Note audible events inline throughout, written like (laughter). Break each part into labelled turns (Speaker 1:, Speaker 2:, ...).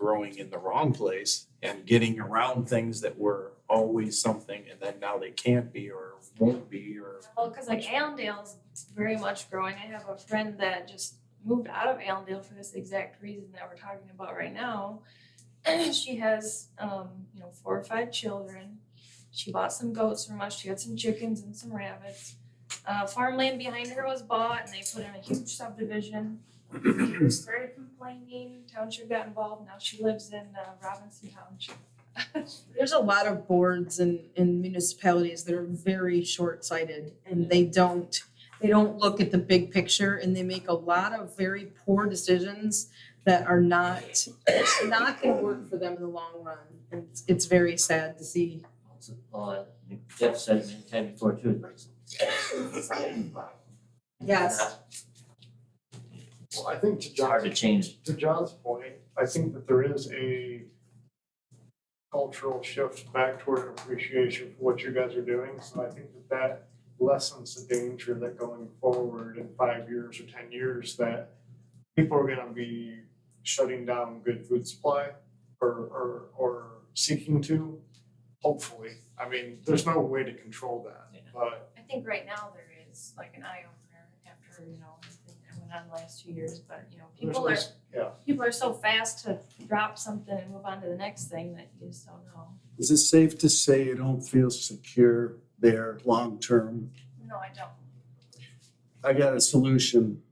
Speaker 1: borrowing in the wrong place and getting around things that were always something and then now they can't be or won't be or
Speaker 2: Well, cause like Allendale's very much growing. I have a friend that just moved out of Allendale for this exact reason that we're talking about right now. (clears throat) She has, um, you know, four or five children. She bought some goats from us. She had some chickens and some rabbits. Uh, farmland behind her was bought and they put in a huge subdivision. She started complaining, township got involved. Now she lives in uh, Robinson Township.
Speaker 3: There's a lot of boards and and municipalities that are very short-sighted and they don't, they don't look at the big picture and they make a lot of very poor decisions that are not, not gonna work for them in the long run. And it's- it's very sad to see.
Speaker 4: Well, Jeff said it many times before too.
Speaker 3: Yes.
Speaker 5: Well, I think to
Speaker 4: It's hard to
Speaker 5: John's,
Speaker 4: change.
Speaker 5: to John's point, I think that there is a cultural shift back toward an appreciation for what you guys are doing. So I think that that lessens the danger that going forward in five years or ten years that people are gonna be shutting down good food supply or or or seeking to, hopefully. I mean, there's no way to control that,
Speaker 4: Yeah.
Speaker 5: but
Speaker 2: I think right now there is like an eye opener after, you know, everything that went on the last two years, but you know,
Speaker 5: there's
Speaker 2: people are,
Speaker 5: this- yeah.
Speaker 2: people are so fast to drop something and move on to the next thing that you just don't know.
Speaker 6: Is it safe to say you don't feel secure there long-term?
Speaker 2: No, I don't.
Speaker 6: I got a solution.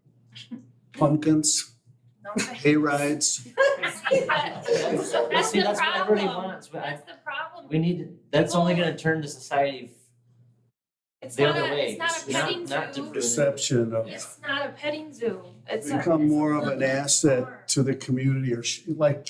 Speaker 6: Pumpkins, (laughs)
Speaker 2: No, I-
Speaker 6: hay
Speaker 2: (laughs)
Speaker 6: rides.
Speaker 2: That's the
Speaker 4: Well, see, that's what everybody
Speaker 2: problem.
Speaker 4: wants, but I,
Speaker 2: That's the problem.
Speaker 4: we need, to- that's only gonna turn the society
Speaker 2: It's
Speaker 4: the
Speaker 2: not
Speaker 4: other
Speaker 2: a,
Speaker 4: way.
Speaker 2: it's not a
Speaker 4: It's not-
Speaker 2: petting
Speaker 4: not to
Speaker 2: zoo.
Speaker 6: Perception of
Speaker 2: It's not a petting zoo. It's a-
Speaker 6: become
Speaker 2: it's a
Speaker 6: more of an
Speaker 2: public park.
Speaker 6: asset to the community or sh- like,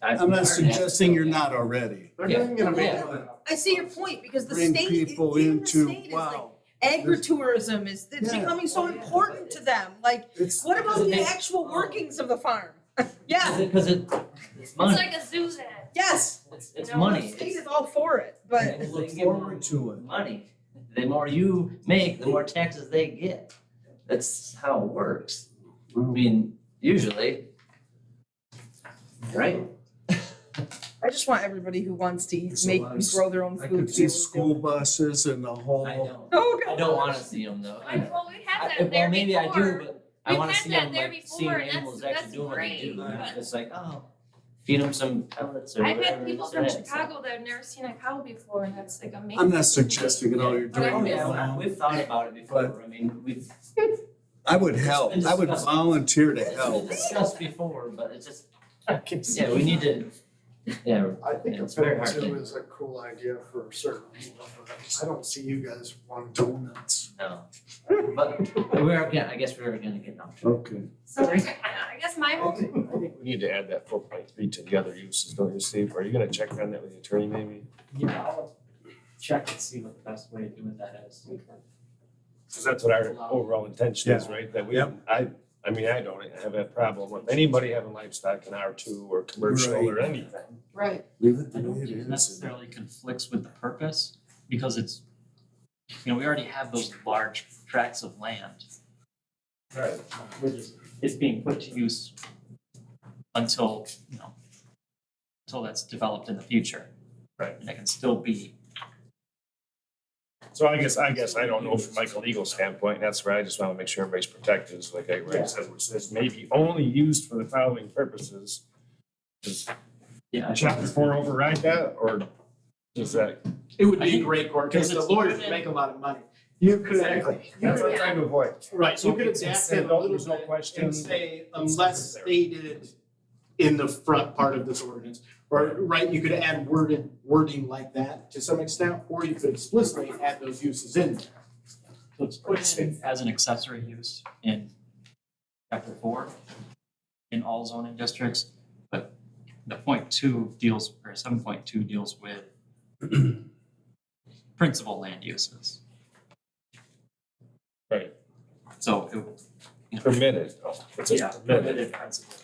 Speaker 4: I've
Speaker 6: I'm not
Speaker 4: heard.
Speaker 6: suggesting you're not already.
Speaker 5: They're
Speaker 4: Yeah.
Speaker 5: not gonna make
Speaker 4: Yeah.
Speaker 5: that.
Speaker 3: I see your
Speaker 5: (laughs)
Speaker 3: point because the
Speaker 6: Bring
Speaker 3: state,
Speaker 6: people
Speaker 3: even the
Speaker 6: into,
Speaker 3: state is like,
Speaker 6: wow.
Speaker 3: agritourism is, it's
Speaker 6: Yeah.
Speaker 3: becoming so important to them, like,
Speaker 6: It's,
Speaker 3: what about the
Speaker 4: Isn't it-
Speaker 3: actual workings of the farm? (laughs)
Speaker 4: Cause
Speaker 3: Yeah,
Speaker 4: it, cause it, it's
Speaker 2: It's
Speaker 4: money,
Speaker 2: like a zoo then.
Speaker 3: yes,
Speaker 4: it's, it's
Speaker 2: No,
Speaker 3: the
Speaker 4: money,
Speaker 3: state
Speaker 4: it's
Speaker 3: is all for it, but.
Speaker 4: They
Speaker 6: look
Speaker 4: give more
Speaker 6: forward to it.
Speaker 4: Money, the more you make, the more taxes they get, that's how it works, I mean, usually. Right?
Speaker 3: I just want everybody who wants to eat,
Speaker 6: There's a
Speaker 3: make,
Speaker 6: lot of s-
Speaker 3: grow their own food.
Speaker 6: I
Speaker 3: to
Speaker 6: could
Speaker 3: be
Speaker 6: see
Speaker 3: able to do
Speaker 6: school
Speaker 3: it.
Speaker 6: buses and the (laughs)
Speaker 4: I
Speaker 6: whole,
Speaker 4: know,
Speaker 3: Oh,
Speaker 4: I
Speaker 3: God.
Speaker 4: don't wanna see them though, I
Speaker 2: I-
Speaker 4: know.
Speaker 2: Well, we had
Speaker 4: I-
Speaker 2: that there before.
Speaker 4: Well, maybe I do, but I
Speaker 2: We've
Speaker 4: wanna
Speaker 2: had
Speaker 4: see
Speaker 2: that
Speaker 4: them
Speaker 2: there
Speaker 4: like, seeing
Speaker 2: before, and that's-
Speaker 4: animals actually
Speaker 2: that's
Speaker 4: doing what they do,
Speaker 2: great,
Speaker 4: not
Speaker 2: but-
Speaker 4: just like, oh, feed them some pellets or
Speaker 2: I've
Speaker 4: whatever.
Speaker 2: had people
Speaker 4: this
Speaker 2: from
Speaker 4: and that, so-
Speaker 2: Chicago that have never seen a cow before and that's like amazing.
Speaker 6: I'm not suggesting at all you're
Speaker 2: But I
Speaker 6: doing
Speaker 4: Oh,
Speaker 6: it
Speaker 4: yeah, well,
Speaker 6: wrong.
Speaker 4: we've thought about it before, I
Speaker 7: (laughs)
Speaker 4: mean, we've,
Speaker 6: I would help. I would volunteer to
Speaker 4: it's been
Speaker 6: help.
Speaker 4: discussed before, but it's just, yeah, we need to, yeah,
Speaker 5: I think
Speaker 4: Yeah,
Speaker 5: a
Speaker 4: it's very
Speaker 5: pivot
Speaker 4: hard
Speaker 5: two
Speaker 4: to-
Speaker 5: is a cool idea for certain people, but I don't see you guys wanting to.
Speaker 6: Donuts.
Speaker 4: no. But we're gonna, I guess we're gonna get off.
Speaker 6: Okay.
Speaker 2: So I, I guess my whole
Speaker 1: I think we need to add that four point three to the other uses, don't you, Steve? Are you gonna check on that with the attorney maybe?
Speaker 7: Yeah, I'll check and see what the best way of doing that is.
Speaker 1: Cause that's what our overall intention is, right? That we, I, I mean, I don't have that problem with anybody having livestock in R two or commercial or
Speaker 6: Right.
Speaker 1: anything.
Speaker 3: Right,
Speaker 6: Leave it the
Speaker 7: I
Speaker 6: way
Speaker 7: don't
Speaker 6: it
Speaker 7: think it
Speaker 6: is.
Speaker 7: necessarily conflicts with the purpose, because it's, you know, we already have those large tracts of land.
Speaker 1: Right.
Speaker 7: We're just, it's being put to use until, you know, until that's developed in the future.
Speaker 1: Right.
Speaker 7: And that can still be,
Speaker 1: So I guess, I guess I don't know from like a legal standpoint, that's where I just wanna make sure everybody's protected, is like I read, says, which says may be only used for the following purposes. Does
Speaker 7: yeah. I-
Speaker 1: chapter four override that, or does that?
Speaker 8: It would
Speaker 7: I
Speaker 8: be a
Speaker 7: think-
Speaker 8: great court
Speaker 7: because
Speaker 8: case, the
Speaker 7: it's
Speaker 8: lawyers
Speaker 7: proven-
Speaker 8: would make a lot of money.
Speaker 5: You could.
Speaker 1: Exactly.
Speaker 8: That's
Speaker 2: what I'm
Speaker 1: trying to avoid.
Speaker 8: Right,
Speaker 1: So
Speaker 8: you could
Speaker 1: it's
Speaker 8: adapt
Speaker 1: instead
Speaker 8: it a
Speaker 1: of
Speaker 8: little
Speaker 1: there's no
Speaker 8: bit
Speaker 1: question,
Speaker 8: and say
Speaker 1: it's
Speaker 8: unless
Speaker 1: necessary.
Speaker 8: stated in the front part of this ordinance. Or, right, you could add worded, wording like that to some extent, or you could explicitly add those uses in there.
Speaker 7: So it's put in as an accessory use in chapter four in all zoning districts. But the point two deals, or seven point two deals with (clears throat) principal land uses.
Speaker 1: Right.
Speaker 7: So it, you know,
Speaker 1: Permitted, oh, it's
Speaker 7: yeah,
Speaker 1: just permitted.
Speaker 7: permitted principal.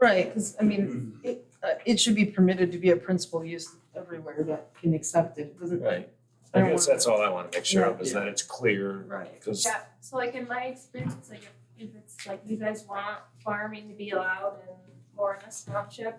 Speaker 3: right, because I mean,
Speaker 6: Mm.
Speaker 3: it, uh, it should be permitted to be a principal use everywhere that can accept it, It doesn't.
Speaker 1: Right,
Speaker 3: I
Speaker 1: I
Speaker 3: don't
Speaker 1: guess
Speaker 3: wanna-
Speaker 1: that's all I wanna make sure of, is that it's clear,
Speaker 4: Right.
Speaker 1: cause
Speaker 2: Yeah, so like in my experience, like if, if it's like you guys want farming to be allowed in Lawrence Township